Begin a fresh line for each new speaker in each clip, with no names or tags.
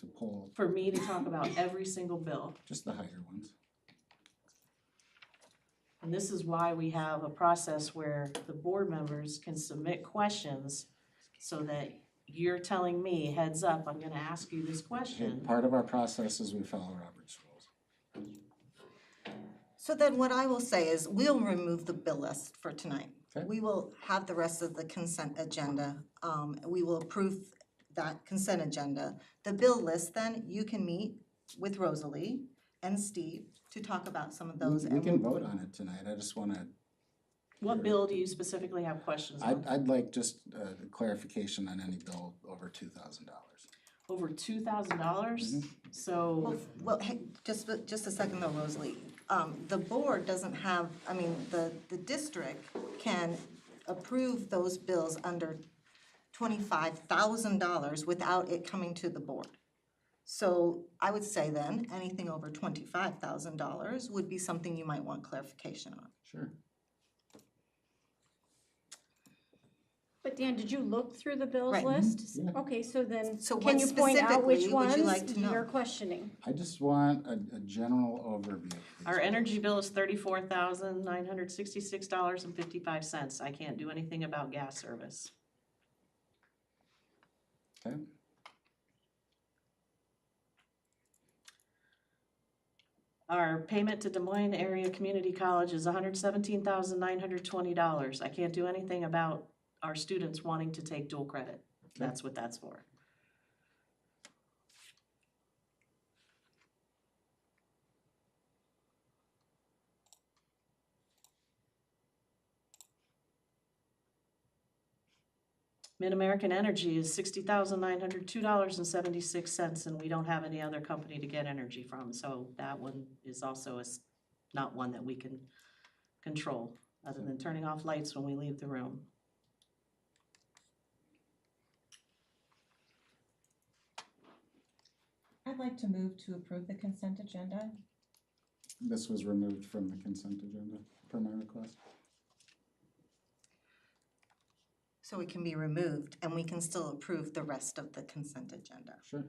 to pull
for me to talk about every single bill.
just the higher ones.
And this is why we have a process where the board members can submit questions so that you're telling me heads up, I'm gonna ask you this
Hey,
question.
Part of our process is we follow Robert's rules.
So then what I will say is we'll remove the bill list for tonight.
Okay.
We will have the rest of the consent agenda. Um, we will approve that consent agenda. The bill list, then you can meet with Rosalie and Steve to talk about some of those.
We
and
can vote on it tonight, I just wanna,
What bill do you specifically have questions
I'd,
on?
I'd like just uh, clarification on any bill over two thousand dollars.
Over two thousand dollars?
Well,
So,
f- well, hey, just, a- just a second though, Rosalie. Um, the board doesn't have, I mean, the, the district can approve those bills under twenty-five thousand dollars without it coming to the board. So I would say then, anything over twenty-five thousand dollars would be something you might want clarification on.
Sure.
But Dan, did you look through the bills
Right. Mm-hmm.
list?
Mhm, yeah.
Okay, so then,
So
can
what
you point out which
specifically would you like
ones
to know?
you're questioning?
I just want a, a general overview. of these
our
bills.
energy bill is thirty-four thousand nine hundred sixty-six dollars and fifty-five cents. I can't do anything about gas service.
Okay,
Our payment to Des Moines Area Community College is hundred seventeen thousand nine hundred twenty dollars. I can't do anything about our students wanting to take dual credit. That's what that's for. Mid-American Energy is sixty thousand nine hundred two dollars and seventy-six cents, and we don't have any other company to get energy from, so that one is also is not one that we can control, other than turning off lights when we leave the room.
I'd like to move to approve the consent agenda.
this was removed from the consent agenda per my request.
So it can be removed and we can still approve the rest of the consent agenda.
Sure.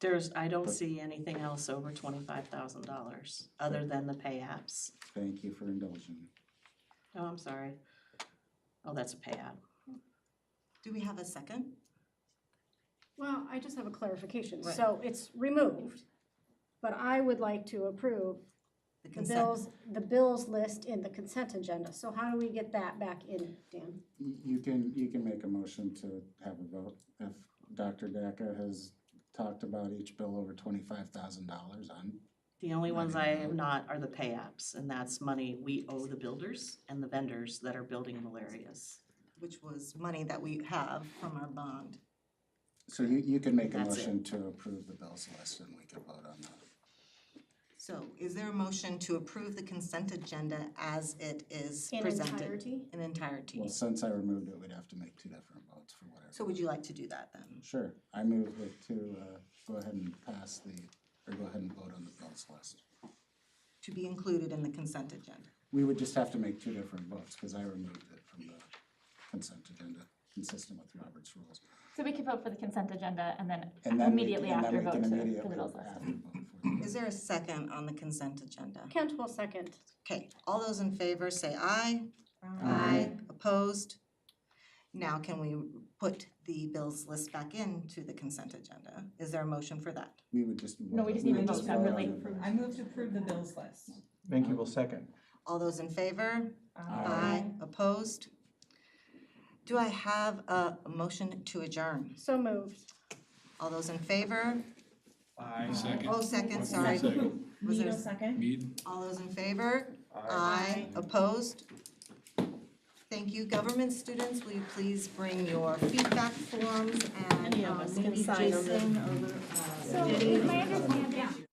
There's, I don't see anything else over twenty-five thousand dollars, other than the pay apps.
Thank you for indulging. me.
Oh, I'm sorry. Oh, that's a pay app.
Do we have a second?
Well, I just have a clarification.
Right.
So it's removed, but I would like to approve
The
the
consent.
bills, the bills list in the consent agenda. So how do we get that back in, Dan?
Y- You can, you can make a motion to have a vote. If Dr. Daka has talked about each bill over twenty-five thousand dollars, I'm
The only
Not
ones
even
I
that.
am not are the pay apps, and that's money we owe the builders and the vendors that are building malarias.
which was money that we have from our bond.
So you, you can make a
That's it.
motion to approve the bills list and we can vote on that.
So is there a motion to approve the consent agenda as it is
In
presented?
entirety?
In entirety.
Well, since I removed it, we'd have to make two different votes for whatever.
So would you like to do that then?
Sure, I move it to, uh, go ahead and pass the, or go ahead and vote on the bills list.
To be included in the consent agenda?
We would just have to make two different votes because I removed it from the consent agenda, consistent with Robert's rules.
So we could vote for the consent agenda and then
And then we-
immediately
and then
after
we
vote
can
to- for
immediately
the bills list.
after vote for the-
Is there a second on the consent agenda?
Kent will second.
Okay, all those in favor say aye.
Aye.
Opposed? Now can we put the bills list back into the consent agenda? Is there a motion for that?
We would just.
No, we just
vote-
need to vote
just on
separately.
the bills.
I move to approve the bills list.
Thank you. will second.
All those in favor?
Aye.
Opposed? Do I have a motion to adjourn?
So moved.
All those in favor?
Aye.
Oh, second, sorry. Was
Need
there,
a second?
all those in favor? Aye. Opposed? Thank you. Government students, will you please bring your feedback forms and
Any of
um,
us can
maybe
sign
Jason
them.
or Lou- uh,
So is my understanding,